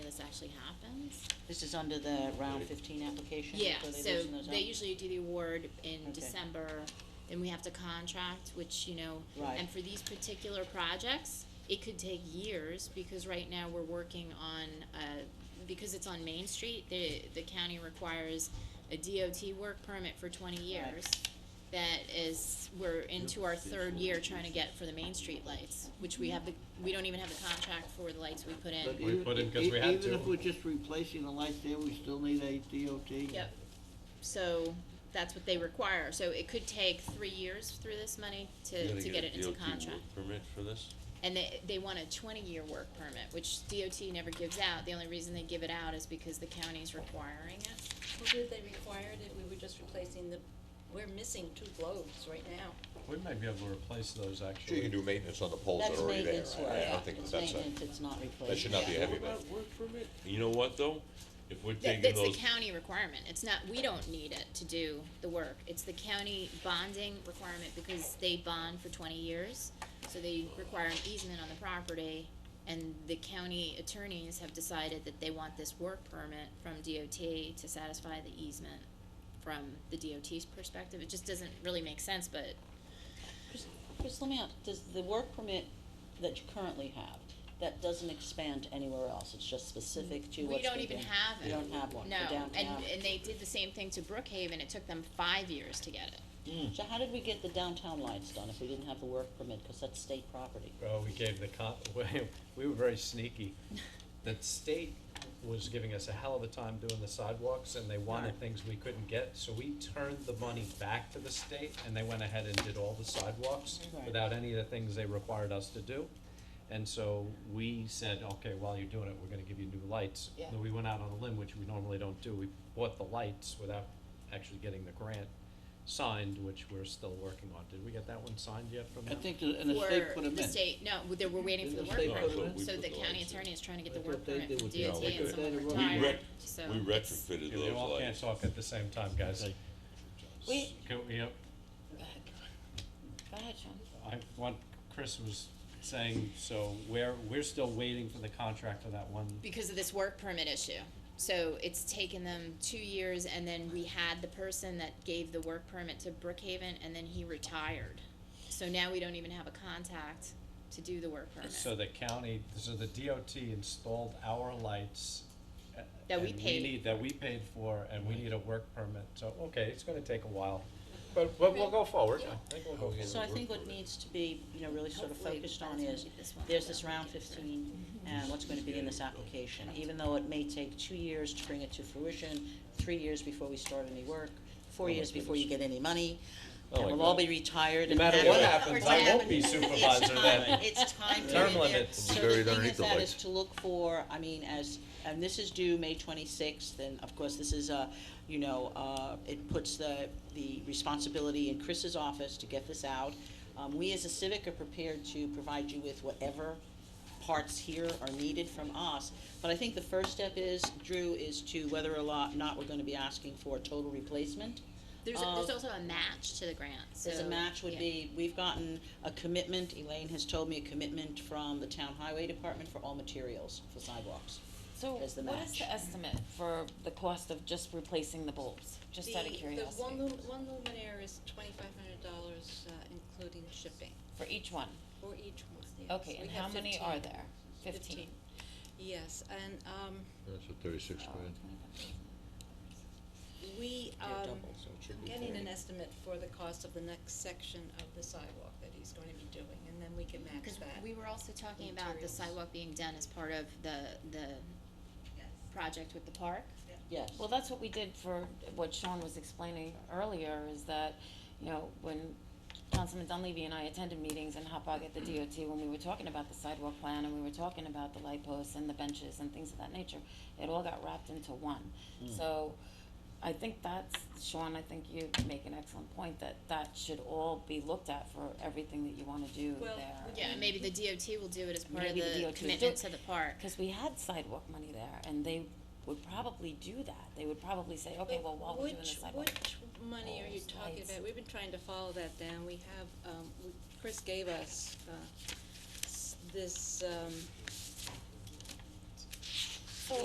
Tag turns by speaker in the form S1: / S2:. S1: actually happens.
S2: This is under the round fifteen application?
S1: Yeah,
S2: for the
S1: so
S2: addition of the-
S1: they usually do the award in
S2: Okay.
S1: December, then we have to contract, which, you know,
S2: Right.
S1: and for these particular projects, it could take years, because right now we're working on, uh, because it's on Main Street, the, the county requires a DOT work permit for twenty years. That is, we're into our third year trying to get for the Main Street lights, which we have the, we don't even have the contract for the lights we put
S3: But
S1: in.
S4: We
S3: even-
S4: put in 'cause
S3: e-
S4: we had
S3: Even
S4: to.
S3: if we're just replacing the lights there, we still need a DOT?
S1: Yep. So that's what they require. So it could take three years through this money to, to get it into contract.
S5: Permit for this?
S1: And they, they want a twenty-year work permit, which DOT never gives out. The only reason they give it out is because the county's requiring it.
S6: Well, did they require that we were just replacing the, we're missing two globes right now.
S4: We might be able to replace those
S7: Sure, you
S4: actually.
S7: can do maintenance on the poles that
S2: That's
S7: are Oh, already there.
S2: maintenance
S7: I-
S2: work.
S7: I don't think
S2: It's
S7: that that's
S2: maintenance,
S7: a,
S2: it's not replacement.
S7: that should not be a heavy lift.
S5: Work permit? You know what, though? If we're
S1: That,
S5: taking
S1: that's the
S5: those,
S1: county requirement. It's not, we don't need it to do the work. It's the county bonding requirement because they bond for twenty years. So they require an easement on the property and the county attorneys have decided that they want this work permit from DOT to satisfy the easement from the DOT's perspective. It just doesn't really make sense, but
S2: Chris, Chris, let me ask, does the work permit that you currently have, that doesn't expand to anywhere else, it's just specific to
S1: We
S2: what's
S1: don't
S2: being
S1: even
S2: done?
S1: have
S2: You
S1: it.
S2: don't have one
S1: no.
S2: for downtown?
S1: And, and they did the same thing to Brookhaven. It took them five years to get it.
S2: So how did we get the downtown lights done if we didn't have the work permit, cause that's state property?
S4: Well, we gave the con, we were very sneaky. The state was giving us a hell of a time doing the sidewalks and they wanted things we couldn't get, so we turned the money back to the state and they went ahead and did all the sidewalks
S2: Right.
S4: without any of the things they required us to do. And so we said, okay, while you're doing it, we're gonna give you new lights.
S2: Yeah.
S4: And We went out on a limb, which we normally don't do. We bought the lights without actually getting the grant signed, which we're still working on. Did we get that one signed yet from
S3: I
S4: them?
S3: think, the- and the state put
S1: Or
S3: them
S1: the
S3: in.
S1: state, no, they were waiting for the
S3: Didn't
S1: work
S3: the state
S1: permit.
S3: put them in?
S1: So
S5: We put
S1: the
S5: the
S1: county
S5: lights in.
S1: attorney is trying to get
S3: I
S1: the work
S3: thought they
S1: permit
S3: did
S1: from
S3: what they
S1: DOT
S5: did.
S1: and someone
S3: We
S1: retired,
S5: ret-
S1: so.
S5: we
S1: it's-
S5: retrofitted
S4: Yeah, we
S5: those
S4: all can't
S5: lights.
S4: talk at the same time, guys.
S2: We-
S4: Can we, uh,
S2: Go ahead. Go ahead, Sean.
S4: I want, Chris was saying, so we're, we're still waiting for the contract on that one.
S1: Because of this work permit issue. So it's taken them two years and then we had the person that gave the work permit to Brookhaven and then he retired. So now we don't even have a contact to do the work permit.
S4: So the county, so the DOT installed our lights. uh,
S1: That we
S4: and
S1: paid
S4: need- That we paid for, and we need a work permit, so, okay, it's gonna take a while, but, but we'll go forward, I think we'll go forward.
S2: So I think what needs to be, you know, really sort of
S1: Hopefully,
S2: focused
S1: by the
S2: on
S1: time we
S2: is,
S1: get this one
S2: there's
S1: done,
S2: this
S1: we
S2: round
S1: get through it.
S2: fifteen, and what's gonna be in this application, even though it may take two years to bring it to fruition, three years before we start any work, four
S4: Oh
S2: years before you get any money, and
S4: my
S2: we'll all be retired
S4: No
S2: and
S4: matter
S2: happy.
S4: what
S1: Yeah.
S4: happens,
S1: We're
S4: I won't
S1: tapping
S4: be
S1: it.
S4: supervisor then.
S2: It's time to
S4: Term
S2: get in there.
S4: limits.
S2: So
S7: Buried
S2: the thing
S7: underneath
S2: is
S7: the
S2: that
S7: lights.
S2: is to look for, I mean, as, and this is due May twenty-sixth, and of course, this is a, you know, uh, it puts the, the responsibility in Chris's office to get this out. Um, we as a civic are prepared to provide you with whatever parts here are needed from us. But I think the first step is, Drew, is to whether or lo- not we're gonna be asking for total replacement.
S1: There's,
S2: of-
S1: there's also a match to the grant, so.
S2: as a match would
S1: yeah.
S2: be, we've gotten a commitment, Elaine has told me, a commitment from the town highway department for all materials for sidewalks.
S8: So
S2: as the
S8: what is
S2: match.
S8: the estimate for the cost of just replacing the bulbs? Just out of
S6: The-
S8: curiosity,
S6: The one lum- one luminaire is twenty-five hundred dollars, uh, including shipping,
S8: for each one.
S6: for each one, yes.
S8: Okay,
S6: We
S8: and
S6: have
S8: how many are
S6: 15.
S8: there? Fifteen.
S6: Yes, and, um,
S7: That's a thirty-six
S8: Oh,
S7: grand.
S2: Oh,
S6: we,
S2: They're
S6: um,
S2: double, so it should
S6: I'm
S2: be
S6: getting an
S2: 30.
S6: estimate for the cost of the next section of the sidewalk that he's going to be doing, and then we can match
S1: Cause
S6: that.
S1: we were also talking about the
S6: Materials.
S1: sidewalk being done as part of the, the project with the park.
S2: Yes,
S8: Well, that's what we did for, what Sean was explaining earlier, is that, you know, when Councilman Dunleavy and I attended meetings in Hot Dog at the DOT, when we were talking about the sidewalk plan, and we were talking about the light posts and the benches and things of that nature, it all got wrapped into one. So, I think that's, Sean, I think you make an excellent point, that that should all be looked at for everything that you wanna do there.
S6: Well,
S1: Yeah, and maybe the DOT will do it as part of
S8: Maybe the DOT
S1: the
S8: will do
S1: commitment
S8: it.
S1: to the park.
S8: Because we had sidewalk money there, and they would probably do that. They would probably say, okay, well, while we're doing the sidewalk.
S6: Which, which money are you
S8: Balls,
S6: talking
S8: lights.
S6: about? We've been trying to follow that down. We have, um, we- Chris gave us, uh, s- this, um,